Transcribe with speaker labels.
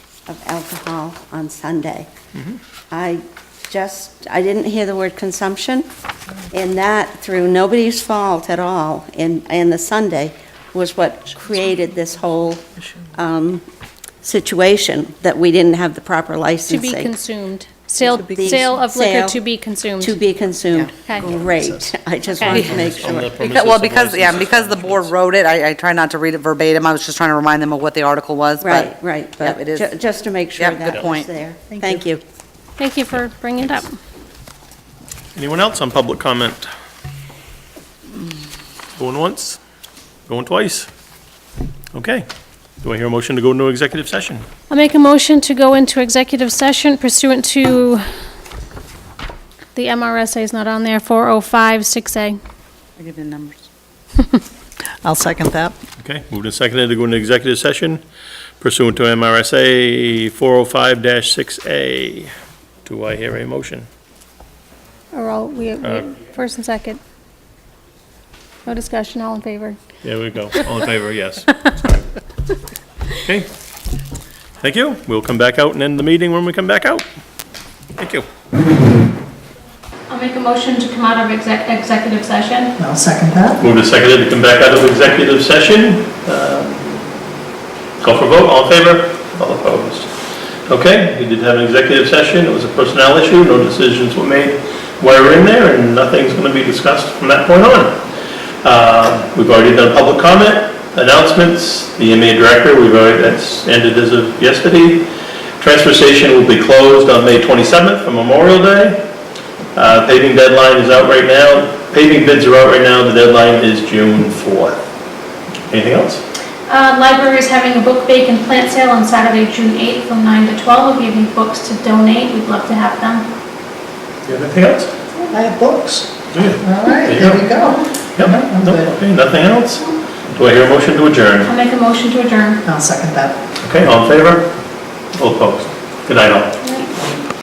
Speaker 1: of alcohol on Sunday. I just, I didn't hear the word consumption, and that, through nobody's fault at all, and, and the Sunday was what created this whole um, situation, that we didn't have the proper
Speaker 2: To be
Speaker 1: licensing.
Speaker 2: consumed. Sale,
Speaker 1: To be-
Speaker 2: sale of liquor
Speaker 1: Sale
Speaker 2: to be consumed.
Speaker 1: To be consumed.
Speaker 2: Yeah. Okay.
Speaker 1: Great, I just wanted to make
Speaker 3: On the
Speaker 1: sure.
Speaker 3: premises
Speaker 4: Because- Well,
Speaker 3: of
Speaker 4: because, yeah,
Speaker 3: licenses.
Speaker 4: because the board wrote it, I, I try not to read it verbatim, I was just trying to remind them of what the article was, but.
Speaker 1: Right, right,
Speaker 4: Yep,
Speaker 1: but
Speaker 4: it is.
Speaker 1: ju- just to make sure
Speaker 4: Yep, good
Speaker 1: that was
Speaker 4: point.
Speaker 1: there. Thank you.
Speaker 2: Thank you for bringing it up.
Speaker 3: Anyone else on public comment? Going once, going twice. Okay. Do I hear a motion to go into executive session?
Speaker 2: I'll make a motion to go into executive session pursuant to the MRSA is not on there, 405-6A.
Speaker 4: I give the numbers.
Speaker 5: I'll second that.
Speaker 3: Okay, moved and seconded to go into executive session pursuant to MRSA 405-6A. Do I hear a motion?
Speaker 2: Or all, we, we-
Speaker 3: Uh.
Speaker 2: first and second. No discussion, all in favor.
Speaker 3: There we go. All in favor, yes. Okay. Thank you. We'll come back out and end the meeting when we come back out. Thank you.
Speaker 2: I'll make a motion to come out of exec- executive session.
Speaker 5: I'll second that.
Speaker 3: Moved and seconded to come back out of executive session. Um, Call for vote, all in favor? All opposed? Okay, we did have an executive session, it was a personnel issue, no decisions were made while we were in there, and nothing's going to be discussed from that point on. Uh, We've already done public comment, announcements, the MA director, we've already, that's ended as of yesterday. Transfer station will be closed on May 27th for Memorial Day. Uh, Paving deadline is out right now, paving bids are out right now, the deadline is June 4th. Anything else?
Speaker 2: Uh, library is having a book bake and plant sale on Saturday, June 8th from 9 to 12. We're giving books to donate. We'd love to have them.
Speaker 3: You have anything else?
Speaker 5: I have books.
Speaker 3: Do you?
Speaker 5: All right, there we go.
Speaker 3: Yep,
Speaker 5: I'm
Speaker 3: no,
Speaker 5: good.
Speaker 3: okay, nothing else? Do I hear a motion to adjourn?
Speaker 2: I'll make a motion to adjourn.
Speaker 5: I'll second that.
Speaker 3: Okay, all in favor? All opposed? Good night all.
Speaker 2: Right.